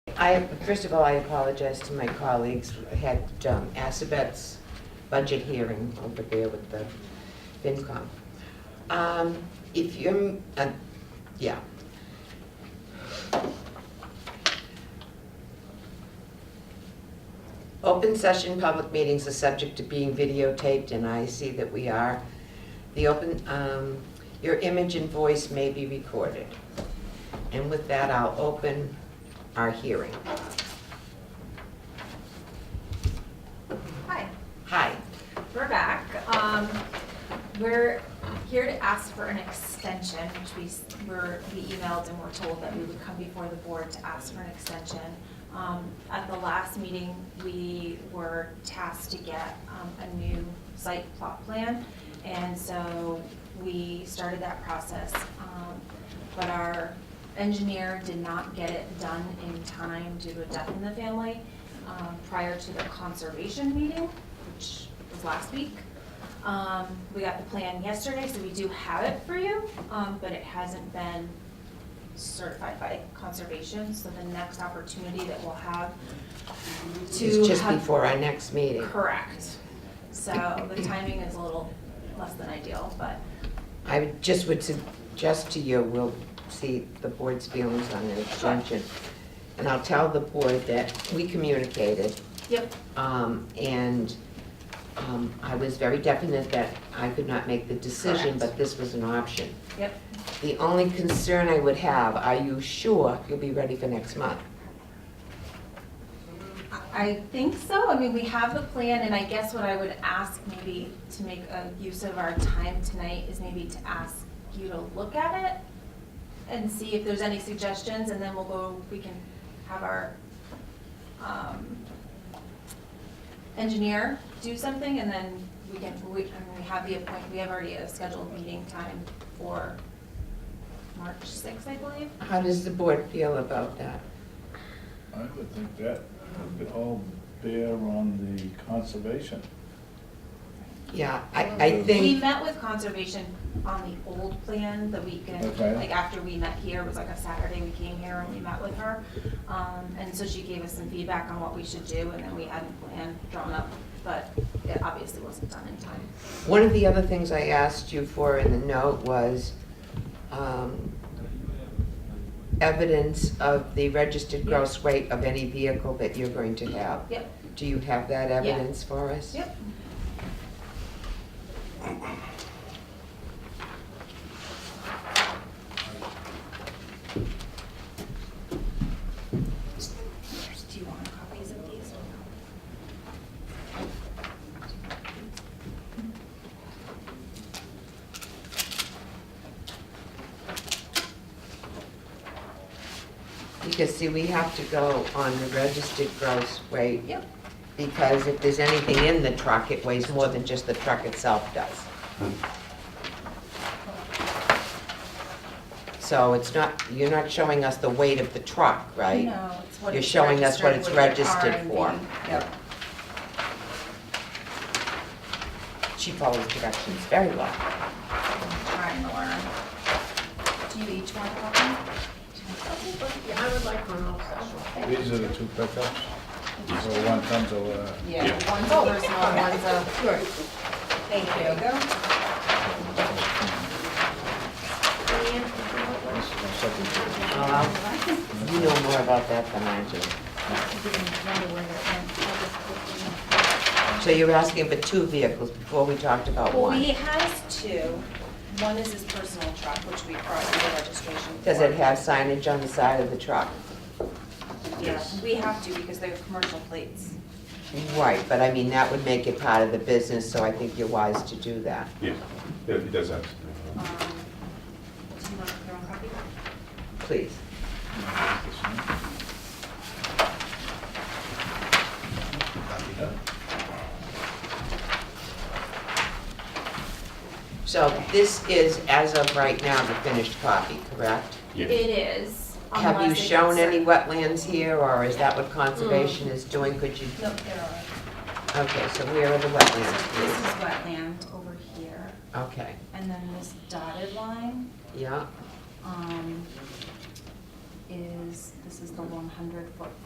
I, first of all, I apologize to my colleagues. I had um, Assabette's budget hearing over there with the FinCom. Um, If you're, uh, yeah. Open session public meetings are subject to being videotaped, and I see that we are. The open, um, your image and voice may be recorded. And with that, I'll open our hearing. Hi, Hi. we're back. Um, We're here to ask for an extension, which we, s- were, we emailed and were told that we would come before the board to ask for an extension. Um, At the last meeting, we were tasked to get um, a new site plot plan, and so we started that process. Um, But our engineer did not get it done in time due to a death in the family um, prior to the conservation meeting, which was last week. Um, We got the plan yesterday, so we do have it for you, um, but it hasn't been certified by conservation. So the next opportunity that we'll have to have. It's just before our next meeting. Correct. So the timing is a little less than ideal, but I would- just would suggest to you, we'll see the board's feelings on an extension. And I'll tell the board that we communicated, yep, um, and um, I was very definite that I could not make the decision, Correct. but this was an option. yep. The only concern I would have, are you sure you'll be ready for next month? I think so. I mean, we have the plan, and I guess what I would ask maybe to make a use of our time tonight is maybe to ask you to look at it and see if there's any suggestions, and then we'll go, we can have our um, engineer do something, and then we can, we, I mean, we have the appoint, we have already a scheduled meeting time for March sixth, I believe. How does the board feel about that? I would think that would all bear on the conservation. Yeah, I, I think. We met with conservation on the old plan the weekend, Okay. like after we met here, it was like a Saturday, we came here and we met with her. Um, and so she gave us some feedback on what we should do, and then we had a plan drawn up, but it obviously wasn't done in time. One of the other things I asked you for in the note was um, evidence of the registered gross weight of any vehicle that you're going to have. Yep, Do you have that evidence for us? yep. Do you want copies of these or no? Because see, we have to go on the registered gross weight. Yep. Because if there's anything in the truck, it weighs more than just the truck itself does. So it's not, you're not showing us the weight of the truck, right? No, it's what You're it's showing us what registered, it's what it registered for. are and being- Yep. She follows directions very well. Trying to learn. Do you each want a copy? Yeah, I would like one also. These are the two pickups, so one comes over. Yeah, one's Oh. a personal, one's a. Thank you. This is my second pickup. Uh, You know more about that than I do. So you're asking for two vehicles before we talked about Well, he one? has two. One is his personal truck, which we crossed the registration for. Does it have signage on the side of the truck? Yeah, we have to because they're commercial plates. Right, but I mean, that would make it part of the business, so I think you're wise to do that. Yeah, yeah, it does have. Um, Do you want your own copy? Please. So this is, as of right now, the finished copy, correct? Yeah, It is. Have you unless it shown gets- any wetlands here, or is that what conservation Mm. is doing? Could you, Nope, there are. okay, so where are the So This is wetlands? wetland over here, Okay, and then this dotted line yeah. um, is, this is the 100-foot